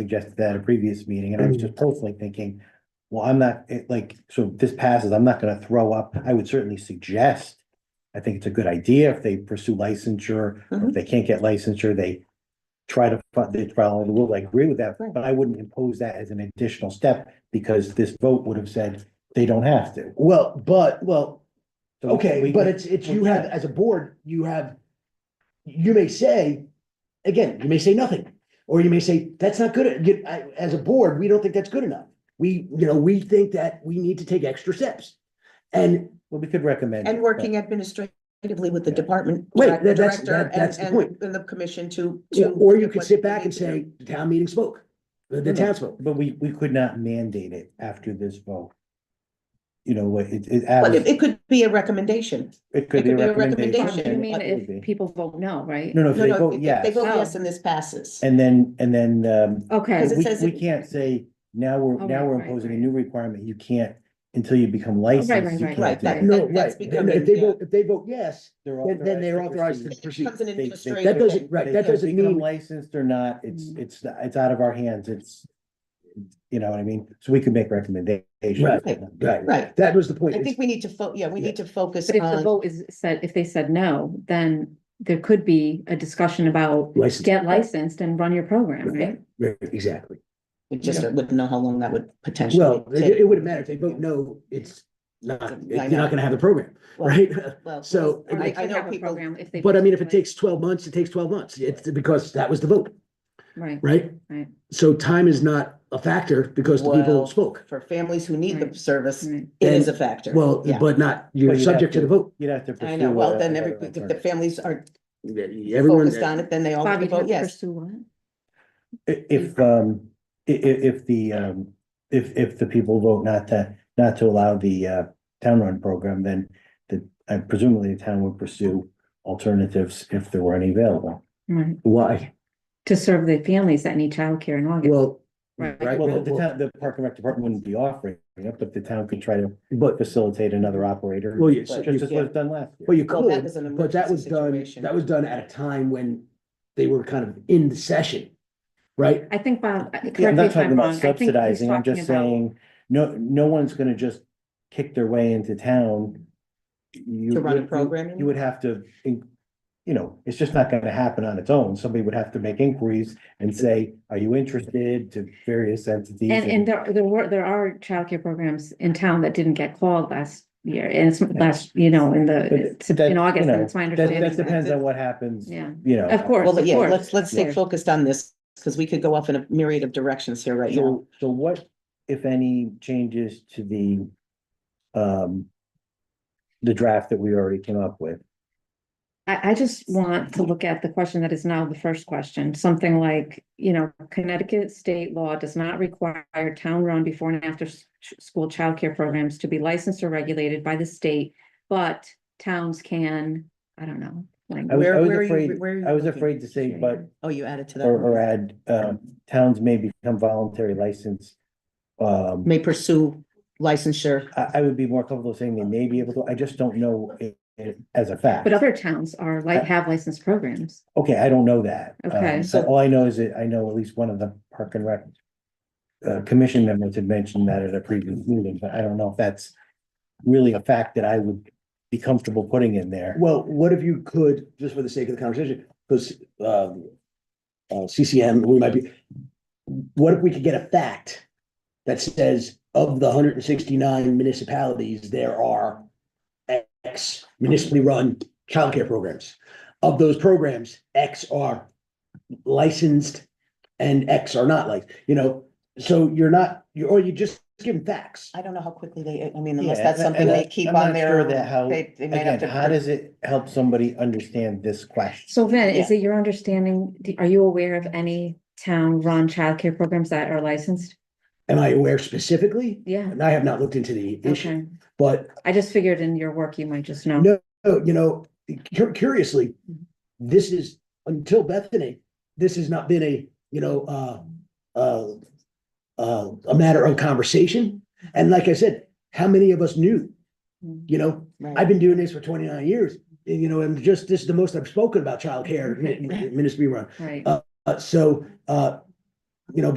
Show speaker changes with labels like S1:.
S1: suggested that at a previous meeting, and I was just
S2: Mm.
S1: personally thinking, well, I'm not, it like, so if this passes, I'm not gonna throw up, I would certainly suggest. I think it's a good idea if they pursue licensure, or if
S2: Mhm.
S1: they can't get licensure, they try to, fi- they follow the rule, I agree with that,
S2: Right.
S1: but I wouldn't impose that as an additional step, because this vote would have said they don't have to.
S3: Well, but, well,
S1: So
S3: okay,
S1: we-
S3: but it's, it's, you have, as a board, you have, you may say, again, you may say nothing, or you may say, that's not good, you, I, as a board, we don't think that's good enough. We, you know, we think that we need to take extra steps. And,
S1: Well, we could recommend. it,
S2: And
S1: but-
S2: working administratively with the
S1: Yeah.
S2: department.
S3: Right,
S2: direct-
S3: that- that's-
S2: director
S3: that- that's
S2: and-
S3: the
S2: and-
S3: point.
S2: And the commission to, to.
S3: or you could
S2: what
S3: sit
S2: they
S3: back and
S2: need to do. Hmm.
S3: say, the town meeting spoke, the, the town spoke.
S1: But we, we could not mandate it after this vote. You know, what, it, it,
S2: But it,
S1: it
S2: it could be a recommendation.
S1: could be a recommendation.
S4: You mean
S1: It would
S4: if
S1: be.
S4: people vote no, right?
S1: No, no, if
S2: No,
S1: they
S2: no,
S1: vote
S2: if they
S1: yes,
S2: vote yes and this passes.
S1: and then, and then, um,
S4: Okay,
S2: Because it
S1: we,
S2: says
S1: we
S2: it-
S1: can't say, now we're,
S4: Oh,
S1: now
S4: right,
S1: we're
S4: right,
S1: imposing a
S4: right.
S1: new requirement, you can't, until you become licensed,
S4: right,
S1: you
S4: right.
S1: can't
S2: Right,
S1: do
S2: that-
S1: it.
S3: No,
S2: that- that's
S3: right, and
S2: becoming-
S3: if they
S2: yeah.
S3: vote, if they vote yes, then, then they're authorized
S1: proceed.
S3: to proceed.
S2: Becomes an
S1: They- they-
S3: That
S2: administrative.
S3: doesn't, right,
S1: They-
S3: that
S1: they
S3: doesn't
S1: become
S3: mean,
S1: Licensed or not, it's,
S4: Mm.
S1: it's, it's out of our hands, it's, you know what I mean, so we could make recommendations.
S3: Right,
S1: Right.
S2: Right.
S3: that was the point.
S2: I think we need to fo, yeah, we need to focus
S4: but if the
S2: on,
S4: vote is said, if they said no, then there could be a discussion about
S3: License,
S4: get licensed and run your program, right?
S3: right, exactly.
S2: we just wouldn't know how long that would potentially
S3: Well, it,
S2: take.
S3: it wouldn't matter if they vote no, it's not,
S2: I
S3: you're
S2: know.
S3: not gonna have the program,
S2: Well,
S3: right?
S2: well,
S3: So-
S2: I-
S4: Or they
S2: I
S4: could
S2: know
S4: have a
S2: people-
S4: program if they.
S3: But I mean, if it
S4: vote
S3: takes twelve months, it takes twelve months. It's because that was the vote,
S4: no. Right,
S3: right?
S4: Right.
S3: So time is not a factor because the people
S2: Well-
S3: spoke.
S2: For families who need the
S4: Right.
S2: service, it
S4: right.
S2: is a factor.
S3: Well,
S2: Yeah.
S3: but not,
S1: Well,
S3: you're
S1: you'd have
S3: subject to the vote.
S1: You'd have to.
S2: I
S1: pursue
S2: know, well,
S1: a-
S2: then
S1: another
S2: every, if the
S1: alternative.
S2: families are
S3: Everyone,
S2: focused on it, then they all have
S4: Bobby,
S2: to vote
S4: do you have to
S2: yes.
S4: pursue what?
S1: I-
S4: Mm-hmm.
S1: If, um, i- i- if the, um, if, if the people vote not to, not to allow the, uh, town run program, then the, uh, presumably the town would pursue alternatives if there were any available.
S4: Right,
S3: why?
S4: to serve the families that need childcare in August,
S3: Well,
S4: right?
S3: right,
S1: Well, the
S3: well,
S1: town, the park and rec department wouldn't be offering it, but the town could try to
S3: but,
S1: facilitate another operator.
S3: well, yes,
S2: But-
S1: Just as was done last
S3: well,
S1: year.
S3: you
S2: Well, that
S3: could,
S2: was an
S3: but that
S2: emergency
S3: was done,
S2: situation.
S3: that was done at a time when they were kind of in the session, right?
S4: I think, Bob, uh, correct
S1: Yeah, I'm
S4: me
S1: not
S4: if
S1: talking
S4: I'm
S1: about
S4: wrong. I think he's
S1: subsidizing, I'm
S4: talking
S1: just
S4: about-
S1: saying, no, no one's gonna just kick their way into town. You-
S2: To run a
S1: you-
S2: program, you
S1: You would have to, in- you know, it's just not gonna happen on its own, somebody would have to make inquiries and say, are you interested to various entities?
S4: And, and there, there were, there are childcare programs in town that didn't get called last year, and it's last, you know, in the,
S1: But
S4: it's
S1: that,
S4: in August,
S1: you
S4: and
S1: know,
S4: it's my
S1: That, that
S4: understanding.
S1: depends on what happens,
S4: Yeah,
S1: you know.
S4: of course,
S2: Well, but
S4: of
S2: yeah,
S4: course.
S2: let's, let's stay
S4: Yeah.
S2: focused on this, because we could go off in a myriad of directions here right now.
S1: So, so what, if any, changes to the, um, the draft that we already came up with?
S4: I, I just want to look at the question that is now the first question, something like, you know, Connecticut state law does not require town-run before and after s- ch- school childcare programs to be licensed or regulated by the state, but towns can, I don't know, like,
S1: I was, I
S2: Where-
S1: was
S2: where are you-
S1: afraid,
S2: where are you
S1: I was
S2: looking?
S1: afraid to say, but,
S2: Oh, you added to that.
S1: or, or add, um, towns may become voluntary license. Um,
S2: May pursue licensure.
S1: I, I would be more comfortable saying they may be able to, I just don't know it, it as a fact.
S4: but other towns are like, have licensed programs.
S1: Okay, I don't know that.
S4: Okay.
S1: Um, So all I know is that I know at least one of the park and rec. Uh, commission members had mentioned that at a previous meeting, but I don't know if that's really a fact that I would be comfortable putting in there.
S3: Well, what if you could, just for the sake of the conversation, because um. Uh, CCM, we might be, what if we could get a fact that says of the hundred and sixty-nine municipalities, there are. X municipally run childcare programs. Of those programs, X are licensed and X are not like, you know, so you're not, you or you just give them facts.
S2: I don't know how quickly they, I mean,
S1: Yeah,
S2: unless that's
S1: and-
S2: something
S1: and
S2: they
S1: I-
S2: keep
S1: I'm
S2: on
S1: not
S2: their.
S1: sure that how-
S2: they- they may have
S1: Again,
S2: to-
S1: how does it help somebody understand this question?
S4: So Vin, is it your understanding, do- are you aware of any town-run childcare programs that are licensed?
S3: Am I aware specifically?
S4: Yeah,
S3: And I have not looked into the issue,
S4: okay.
S3: but
S4: I just figured in your work, you might just know.
S3: No. Oh, you know, cur- curiously, this is until Bethany, this has not been a, you know, uh, uh, uh, a matter of conversation. And like I said, how many of us knew?
S4: Hmm,
S3: You know,
S2: Right.
S3: I've been doing this for twenty-nine years, and, you know, and just this is the most I've spoken about childcare, mi- mi- ministry run.
S4: Right.
S3: Uh, so, uh, you know,